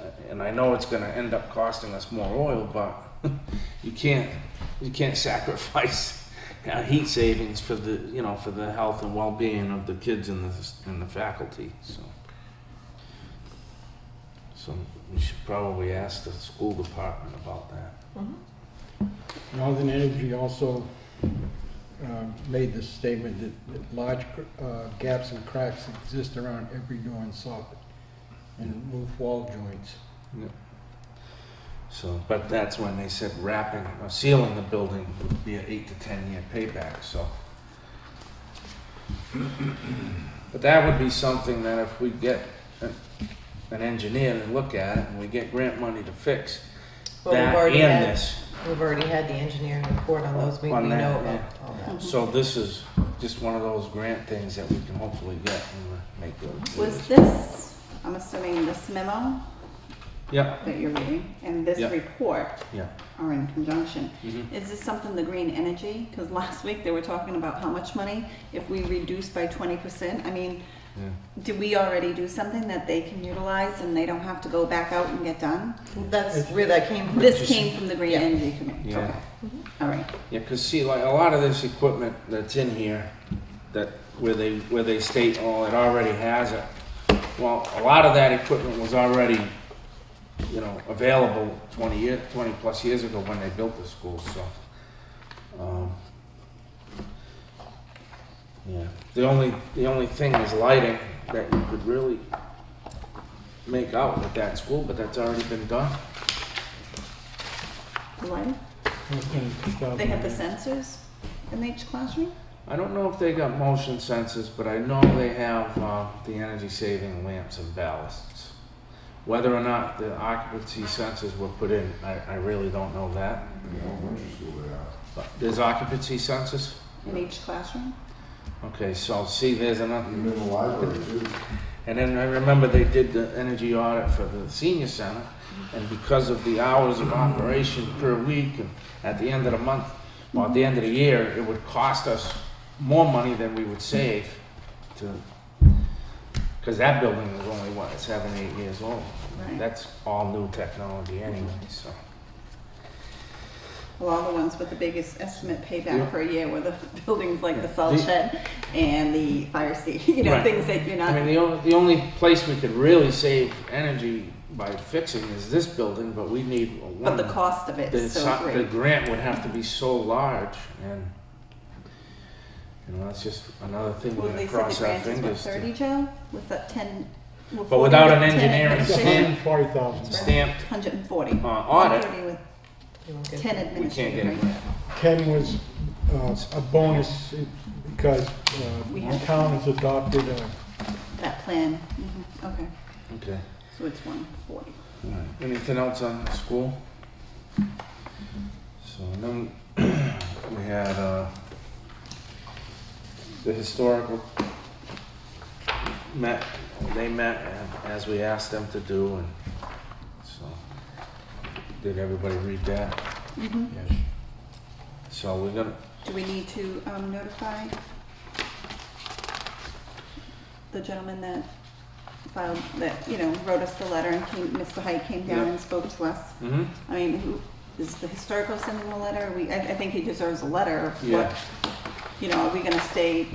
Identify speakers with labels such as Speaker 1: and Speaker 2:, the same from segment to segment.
Speaker 1: Uh, and I know it's going to end up costing us more oil, but you can't you can't sacrifice uh, heat savings for the you know for the health and well being of the kids and the and the faculty. So so we should probably ask the school department about that.
Speaker 2: Northern Energy also um, made this statement that- that large cr- uh, gaps and cracks exist around every door and soffit and roof wall joints.
Speaker 1: So, but that's when they said wrapping or sealing the building would be an eight to ten year payback. So, but that would be something that if we get an, an engineer to look at it and we get grant money to fix
Speaker 3: Well, we've
Speaker 1: that
Speaker 3: already
Speaker 1: and
Speaker 3: had,
Speaker 1: this.
Speaker 3: we've already had the engineering report on those, we we
Speaker 1: On that,
Speaker 3: know
Speaker 1: yeah.
Speaker 3: about all that.
Speaker 1: So this is just one of those grant things that we can hopefully get and make those.
Speaker 4: Was this, I'm assuming this memo
Speaker 1: Yeah,
Speaker 4: that you're reading and this
Speaker 1: Yeah.
Speaker 4: report
Speaker 1: yeah.
Speaker 4: are in conjunction.
Speaker 1: hmm
Speaker 4: Is this something the green energy? Because last week they were talking about how much money if we reduce by twenty percent. I mean,
Speaker 1: yeah.
Speaker 4: do we already do something that they can utilize and they don't have to go back out and get done?
Speaker 3: That's where that came from.
Speaker 4: This came from the green
Speaker 3: Yeah.
Speaker 4: energy committee.
Speaker 1: Yeah.
Speaker 4: Okay. All right.
Speaker 1: Yeah, because see, like a lot of this equipment that's in here, that where they where they state, oh, it already has it. Well, a lot of that equipment was already, you know, available twenty year, twenty plus years ago when they built the school. So, um, yeah, the only the only thing is lighting that you could really make out with that school, but that's already been done.
Speaker 4: The lighting? They have the sensors in each classroom?
Speaker 1: I don't know if they got motion sensors, but I know they have uh, the energy saving lamps and ballasts. Whether or not the occupancy sensors were put in, I, I really don't know that.
Speaker 5: In elementary school, they are.
Speaker 1: But there's occupancy sensors?
Speaker 4: In each classroom?
Speaker 1: Okay, so see, there's another.
Speaker 5: Even in the library, too.
Speaker 1: And then I remember they did the energy audit for the senior center, and because of the hours of operation per week, and at the end of the month, or at the end of the year, it would cost us more money than we would save to, because that building is only, what, seven, eight years old?
Speaker 4: Right.
Speaker 1: That's all new technology anyway, so.
Speaker 4: Well, all the ones with the biggest estimate
Speaker 1: Yeah.
Speaker 4: payback per year were the buildings like the
Speaker 1: Yeah.
Speaker 4: salt
Speaker 1: The-
Speaker 4: shed and the fire station, you know,
Speaker 1: Right.
Speaker 4: things that you're
Speaker 1: I mean,
Speaker 4: not,
Speaker 1: the only, the only place we could really save energy by fixing is this building, but we need one.
Speaker 4: but the cost of it
Speaker 1: the,
Speaker 4: is so
Speaker 1: si- the
Speaker 4: great.
Speaker 1: grant would have to be so large and you know that's just another thing we're
Speaker 4: Well,
Speaker 1: going to
Speaker 4: they said the
Speaker 1: cross our
Speaker 4: grant is what,
Speaker 1: fingers
Speaker 4: thirty,
Speaker 1: to
Speaker 4: Joe? Was that ten?
Speaker 1: But without an engineering
Speaker 2: It's $140,000.
Speaker 1: stamped
Speaker 4: Hundred and forty.
Speaker 1: uh, audit
Speaker 4: Thirty with
Speaker 3: You won't get
Speaker 4: ten
Speaker 3: it.
Speaker 1: we can't get a
Speaker 4: administrative, right?
Speaker 1: grant
Speaker 2: Ken was uh, a bonus because uh,
Speaker 4: We
Speaker 2: the
Speaker 4: have-
Speaker 2: town has adopted a
Speaker 4: That plan, Mhm. okay,
Speaker 1: okay
Speaker 4: so it's one forty.
Speaker 1: All right. anything else on the school so then we had uh, the historical met they met as we asked them to do and so did everybody read that
Speaker 4: Do
Speaker 1: So we're gonna,
Speaker 4: we need to um, notify the gentleman that filed, that, you know, wrote us the letter and came, Mr. Hyde came down
Speaker 1: Yeah.
Speaker 4: and spoke to us? I mean, who, is the historical sending the letter? We, I, I think he deserves a letter. of
Speaker 1: yeah,
Speaker 4: what- You know, are we gonna stay,
Speaker 1: Yeah.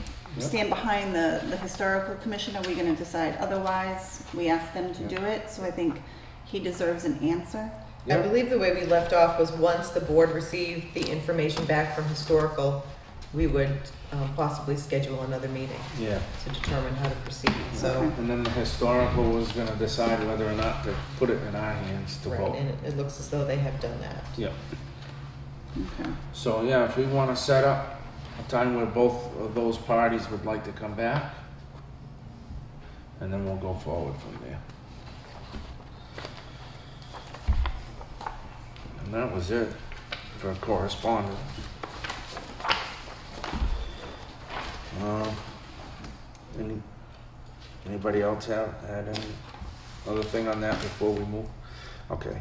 Speaker 4: stand behind the, the historical commission? Are we gonna decide otherwise? We asked them to
Speaker 1: Yeah.
Speaker 4: do it, so I think he deserves an answer.
Speaker 3: I
Speaker 1: yeah,
Speaker 3: believe the way we left off was once the board received the information back from historical, we would um, possibly schedule another meeting
Speaker 1: yeah.
Speaker 3: to determine how to proceed, so.
Speaker 1: And then the historical was gonna decide whether or not to put it in our hands to
Speaker 3: Right,
Speaker 1: vote.
Speaker 3: and it- it looks as though they have done that.
Speaker 1: Yeah,
Speaker 4: Okay.
Speaker 1: so yeah, if we wanna set up a time where both of those parties would like to come back, and then we'll go forward from there. And that was it for correspondence. Um, any, anybody else have, had any other thing on that before we move? Okay.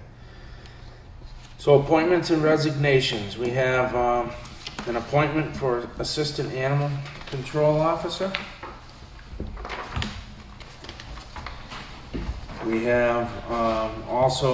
Speaker 1: So appointments and resignations, we have, um, an appointment for Assistant Animal Control Officer. We have um, also